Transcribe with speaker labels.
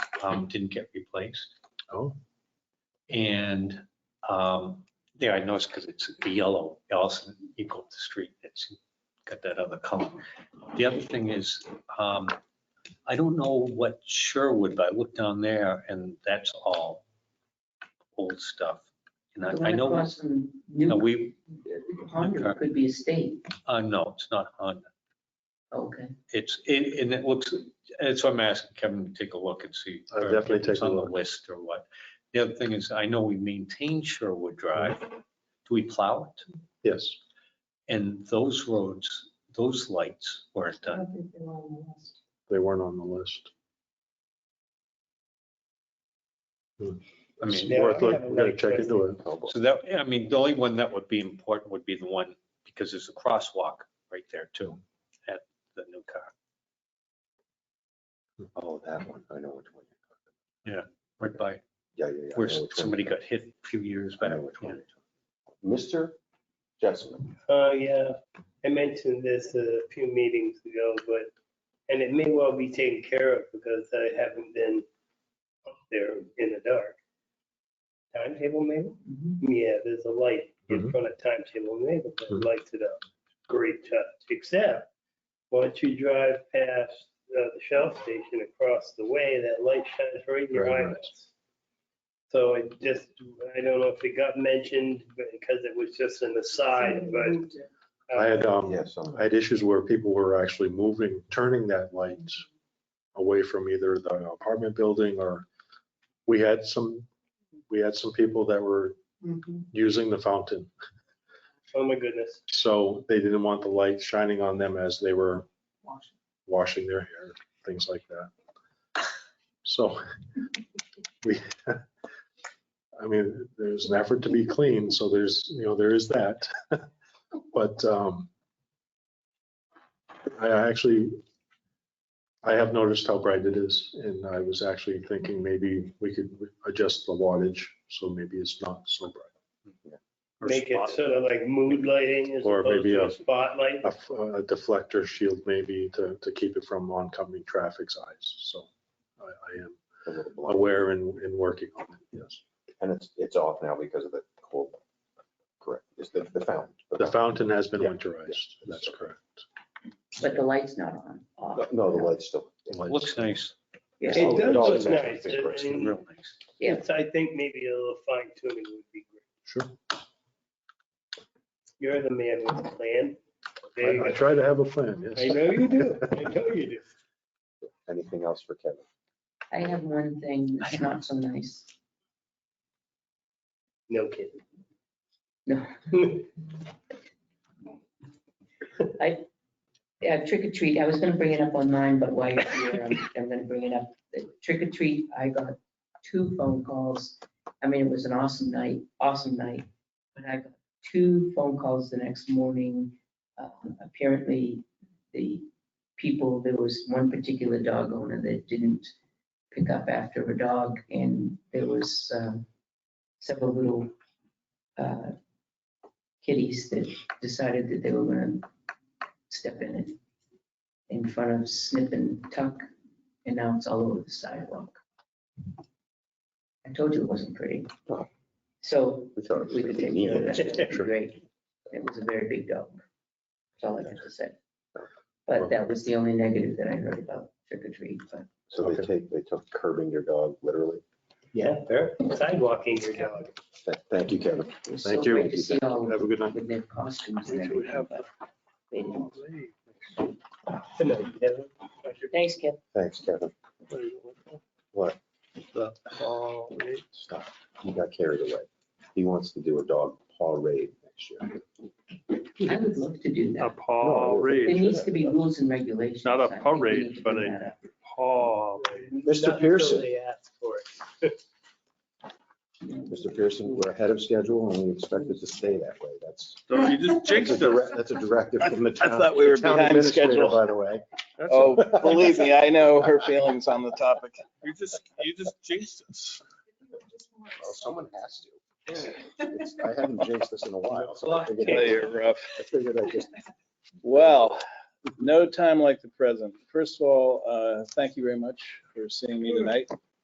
Speaker 1: um, didn't get replaced.
Speaker 2: Oh.
Speaker 1: And, um, there I noticed because it's the yellow, Allison equal to street, it's got that other color. The other thing is, um, I don't know what Sherwood, but I looked down there and that's all old stuff. And
Speaker 3: The
Speaker 1: I, I
Speaker 3: one
Speaker 1: know,
Speaker 3: across from
Speaker 1: no,
Speaker 3: New,
Speaker 1: we,
Speaker 3: Honda could be a state.
Speaker 1: uh, no, it's not Honda.
Speaker 3: Okay.
Speaker 1: It's, it, and it looks, and so I'm asking Kevin to take a look and see.
Speaker 2: I'll
Speaker 1: or if
Speaker 2: definitely take
Speaker 1: It's
Speaker 2: a
Speaker 1: on the
Speaker 2: look.
Speaker 1: list or what. The other thing is, I know we maintain Sherwood Drive. Do we plow it?
Speaker 2: Yes.
Speaker 1: And those roads, those lights weren't done.
Speaker 2: They weren't on the list.
Speaker 1: I
Speaker 2: It's
Speaker 1: mean,
Speaker 4: Yeah,
Speaker 2: worth
Speaker 4: I
Speaker 2: look-
Speaker 4: have
Speaker 2: We're gonna
Speaker 4: another
Speaker 2: check into it.
Speaker 4: Oh,
Speaker 1: so that, I mean, the only one that would be important would be the one, because there's a crosswalk right there too, at the new car.
Speaker 4: Oh, that one, I know which one.
Speaker 1: Right by
Speaker 4: Yeah, yeah, yeah. I
Speaker 1: where
Speaker 4: know which one
Speaker 1: somebody
Speaker 4: you're talking
Speaker 1: got hit a few years
Speaker 4: about. I
Speaker 1: back.
Speaker 4: know which one you're talking about. Mr. Jessamine,
Speaker 5: Oh, yeah. I mentioned this a few meetings ago, but, and it may well be taken care of because I haven't been up there in the dark. Timetable Mabel?
Speaker 3: Mm-hmm.
Speaker 5: Yeah, there's a light in
Speaker 2: Mhm.
Speaker 5: front of Timetable Mabel
Speaker 2: Mhm.
Speaker 5: that lights it up. Great touch, except once you drive past uh, the Shell station across the way, that light shines right in your
Speaker 2: Very nice.
Speaker 5: eyes. So it just, I don't know if it got mentioned because it was just an aside, but
Speaker 2: I
Speaker 5: Uh,
Speaker 2: had, um,
Speaker 4: yes, I'm-
Speaker 2: I had issues where people were actually moving, turning that light away from either the apartment building or we had some, we had some people that were using the fountain.
Speaker 5: Oh, my goodness.
Speaker 2: So they didn't want the light shining on them as they were washing their hair, things like that. So we, I mean, there's an effort to be clean, so there's, you know, there is that. But um I actually, I have noticed how bright it is and I was actually thinking maybe we could adjust the wattage, so maybe it's not so bright. Or
Speaker 5: Make
Speaker 2: spot-
Speaker 5: it sort of like mood lighting as
Speaker 2: Or
Speaker 5: opposed
Speaker 2: maybe
Speaker 5: to
Speaker 2: a-
Speaker 5: a spotlight.
Speaker 2: a f- a deflector shield maybe to, to keep it from oncoming traffic's eyes. So I, I am
Speaker 4: a little blind.
Speaker 2: aware and, and working on it, yes.
Speaker 4: And it's, it's off now because of the cold. Correct, it's the, the fountain.
Speaker 2: The fountain has been
Speaker 4: Yeah,
Speaker 2: winterized, that's correct.
Speaker 3: But the light's not on. off.
Speaker 4: No, No, the light's still.
Speaker 1: Looks nice,
Speaker 3: Yeah.
Speaker 4: Oh,
Speaker 5: It
Speaker 4: does
Speaker 5: does look
Speaker 4: look
Speaker 5: nice.
Speaker 4: nice, Chris.
Speaker 5: and-
Speaker 1: real nice.
Speaker 3: Yeah.
Speaker 5: and so I think maybe a little fine tuning would be great.
Speaker 2: Sure.
Speaker 5: You're the man with the plan. There you
Speaker 2: I, I
Speaker 5: go.
Speaker 2: try to have a plan,
Speaker 5: I
Speaker 2: yes.
Speaker 5: know you do. I know you do.
Speaker 4: Anything else for Kevin?
Speaker 3: I have one thing that's not so nice.
Speaker 5: No kidding.
Speaker 3: No. Yeah, trick or treat, I was gonna bring it up on mine, but while you're here, I'm, I'm gonna bring it up. The Trick or treat, I got two phone calls. I mean, it was an awesome night, awesome night, but I got two phone calls the next morning. Uh, Apparently, the people, there was one particular dog owner that didn't pick up after a dog, and there was um, several little uh, kitties that decided that they were gonna step in it in front of Snip and Tuck, and now it's all over the sidewalk. I told you it wasn't pretty.
Speaker 4: Oh.
Speaker 3: So
Speaker 4: We thought it was
Speaker 3: we could take
Speaker 4: 15
Speaker 3: care of
Speaker 4: years.
Speaker 3: that. It'd be Great. It was a very big dog. That's all I have to say. But that was the only negative that I heard about trick or treat, but
Speaker 4: So they
Speaker 2: Okay.
Speaker 4: take, they took curbing your dog, literally.
Speaker 5: Yeah, they're sidewalking your dog.
Speaker 4: Th- Thank you, Kevin.
Speaker 3: it was so
Speaker 2: Thank you.
Speaker 3: great to see all of
Speaker 2: Have a good night.
Speaker 3: them with their costumes and
Speaker 2: We should
Speaker 3: everything.
Speaker 2: have
Speaker 3: but they didn't.
Speaker 5: I know you do.
Speaker 3: Thanks, Kip.
Speaker 4: Thanks, Kevin. What?
Speaker 2: The
Speaker 4: Stop. He got carried away. He wants to do a dog paw raid next year.
Speaker 3: I would love to do
Speaker 6: A
Speaker 3: that.
Speaker 6: paw
Speaker 3: There
Speaker 6: raid,
Speaker 3: needs to be rules and regulations.
Speaker 6: Not a
Speaker 3: I think we
Speaker 6: parade,
Speaker 3: need to
Speaker 6: but
Speaker 3: bring
Speaker 6: a-
Speaker 3: that up.
Speaker 6: paw.
Speaker 4: Mr.
Speaker 5: Not until
Speaker 4: Pearson.
Speaker 5: They ask for it.
Speaker 4: Mr. Pearson, we're ahead of schedule and we expect it to stay that way. That's,
Speaker 6: So you just
Speaker 4: that's a
Speaker 6: jinxed us.
Speaker 4: direct- that's a directive from the
Speaker 7: I
Speaker 4: town.
Speaker 7: thought we were
Speaker 4: the town
Speaker 7: behind
Speaker 4: administrator,
Speaker 7: schedule.
Speaker 4: By the way.
Speaker 6: That's
Speaker 7: Oh, believe me, I know her feelings on the topic.
Speaker 6: You just, you just jinxed us.
Speaker 4: Well, Someone has to. It's- I haven't jinxed this in a while, so I figured
Speaker 7: Oh,
Speaker 4: I-
Speaker 7: you're rough.
Speaker 4: I figured I just
Speaker 7: Well, no time like the present. First of all, uh, thank you very much for seeing me tonight.